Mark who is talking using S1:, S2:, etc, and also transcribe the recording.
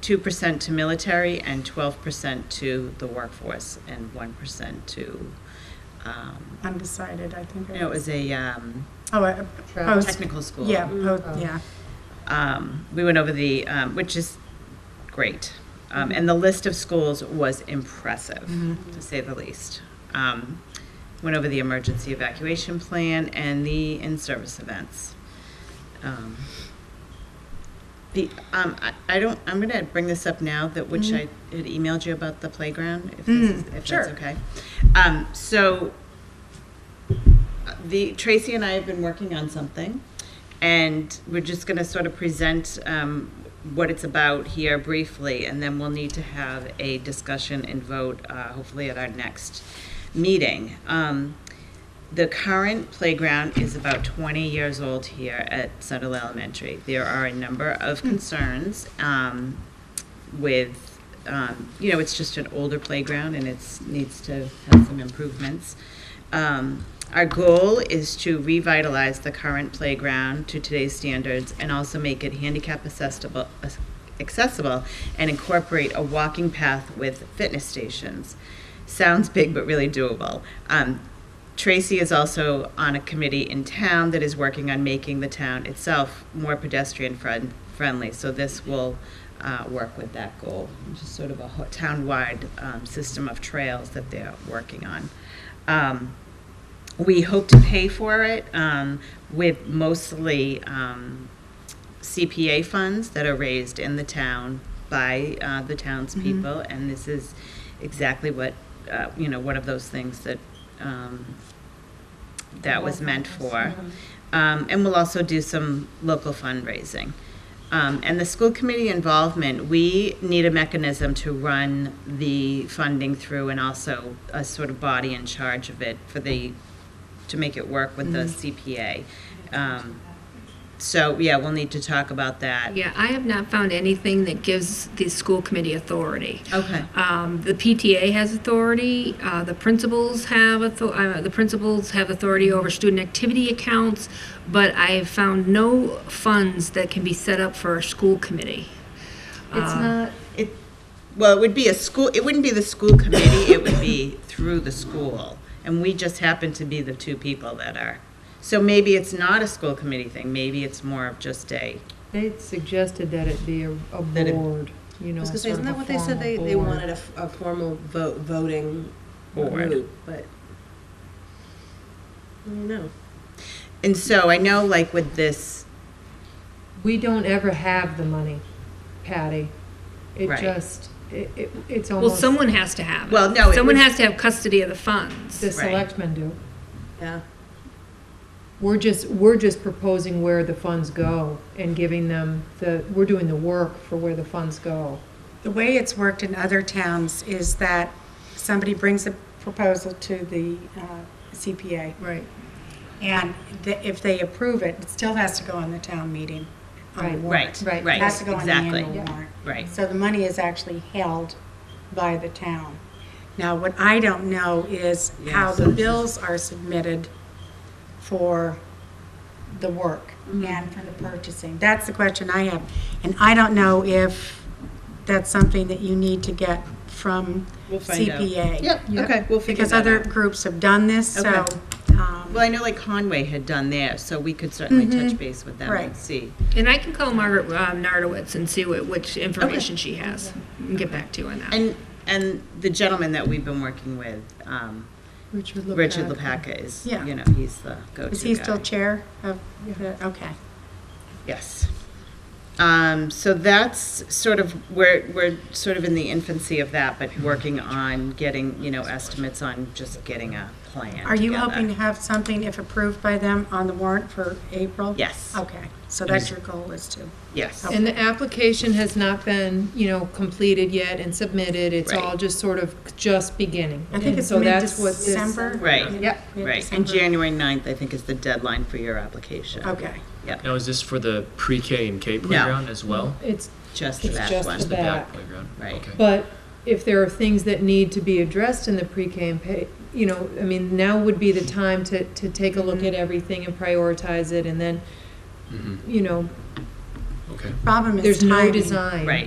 S1: two percent to military and twelve percent to the workforce and one percent to, um,
S2: undecided, I think.
S1: no, it was a, um,
S2: Oh, uh, post-
S1: technical school.
S2: yeah, po- yeah.
S1: Um, we went over the, um, which is great. Um, and the list of schools was impressive, to say the least. Um, went over the emergency evacuation plan and the in-service events. Um, The, um, I, I don't, I'm gonna bring this up now, that which I had emailed you about the playground, if this is, if
S2: sure.
S1: that's okay. Um, so, uh, the, Tracy and I have been working on something, and we're just gonna sort of present, um, what it's about here briefly, and then we'll need to have a discussion and vote, uh, hopefully at our next meeting. Um, the current playground is about 20 years old here at Sutter Elementary. There are a number of concerns um, with, um, you know, it's just an older playground and it's, needs to have some improvements. Um, Our goal is to revitalize the current playground to today's standards and also make it handicap accessible, accessible and incorporate a walking path with fitness stations. Sounds big, but really doable. Um, Tracy is also on a committee in town that is working on making the town itself more pedestrian friend, friendly. So this will uh, work with that goal, which is sort of a ho- town-wide um, system of trails that they're working on. Um, we hope to pay for it um, with mostly um, CPA funds that are raised in the town by uh, the townspeople, and this is exactly what, uh, you know, one of those things that, um, that was meant for. Um, And we'll also do some local fundraising. Um, And the school committee involvement, we need a mechanism to run the funding through and also a sort of body in charge of it for the, to make it work with the CPA. Um, So, yeah, we'll need to talk about that.
S3: Yeah, I have not found anything that gives the school committee authority.
S1: Okay.
S3: Um, the PTA has authority, uh, the principals have author, uh, the principals have authority over student activity accounts, but I have found no funds that can be set up for a school committee.
S4: Ah.
S3: Um,
S1: It's not. It, well, it would be a school, it wouldn't be the school committee, it would be through the school. And we just happen to be the two people that are. So maybe it's not a school committee thing, maybe it's more of just a,
S5: They had suggested that it be a, a
S1: That it-
S5: board, you know,
S4: I was gonna say,
S5: sort
S4: isn't
S5: of a
S4: that what they said they,
S5: formal
S4: they
S5: board.
S4: wanted a, f- a formal vote, voting
S1: Board.
S4: group, but. I don't know.
S1: and so I know like with this,
S5: We don't ever have the money, Patty. It
S1: Right.
S5: just, it, it, it's
S3: Well,
S5: almost.
S3: someone has to have it.
S1: Well, no, it
S3: Someone
S1: would-
S3: has to have custody of the funds.
S5: The
S1: Right.
S5: selectmen do.
S4: Yeah,
S5: We're just, we're just proposing where the funds go and giving them the, we're doing the work for where the funds go.
S2: The way it's worked in other towns is that somebody brings a proposal to the uh, CPA,
S5: Right.
S2: and th- if they approve it, it still has to go on the town meeting. on the
S5: Right.
S1: right,
S2: warrant.
S5: Right.
S1: right,
S2: It has to go on the
S1: exactly,
S2: annual warrant.
S1: right.
S2: So the money is actually held by the town. Now, what I don't know is how the bills are submitted for the work
S1: Mm-hmm.
S2: and for the purchasing. That's the question I have. And I don't know if that's something that you need to get from
S1: We'll find out.
S2: CPA.
S1: Yep,
S5: Yep.
S1: okay, we'll figure
S2: Because
S1: that
S2: other
S1: out.
S2: groups have done this, so,
S1: Okay.
S2: um,
S1: Well, I know like Conway had done there, so we could certainly touch base with them and
S2: Mm-hmm. Right.
S1: see.
S3: And I can call Margaret um, Nardowitz and see what, which information she has and get back to you on that.
S1: And, and the gentleman that we've been working with, um,
S5: Richard LePac.
S1: Richard LaPaca is,
S2: Yeah.
S1: you know, he's the go-to guy.
S2: is he still chair of, the- okay.
S1: Yes. Um, so that's sort of we're we're sort of in the infancy of that, but
S2: Mm-hmm.
S1: working on getting you know estimates on just getting a plan.
S2: Are you
S1: together.
S2: hoping to have something, if approved by them, on the warrant for April?
S1: Yes.
S2: Okay, so that's your goal is to,
S1: Yes.
S5: And the application has not been, you know, completed yet and submitted. It's
S1: Right.
S5: all just sort of just beginning.
S2: I think
S5: And
S2: it's
S5: so that's what this-
S2: mid-December?
S1: Right.
S5: Yep.
S1: Right. And January 9th, I think, is the deadline for your application.
S2: Okay,
S6: Now, is this for the pre-K and K playground as well?
S5: It's
S1: Just the
S5: It's
S1: back
S5: just
S1: one.
S5: the
S6: The back
S5: Mm-hmm. Back.
S6: playground?
S1: Right.
S6: Okay.
S5: But if there are things that need to be addressed in the pre-K and pay, you know, I mean, now would be the time to, to take a look
S2: Mm-hmm.
S5: at everything and prioritize it and then,
S6: Mhm.
S5: you know,
S6: Okay.
S2: problem is
S5: there's no
S2: timing.
S5: design.
S1: Right.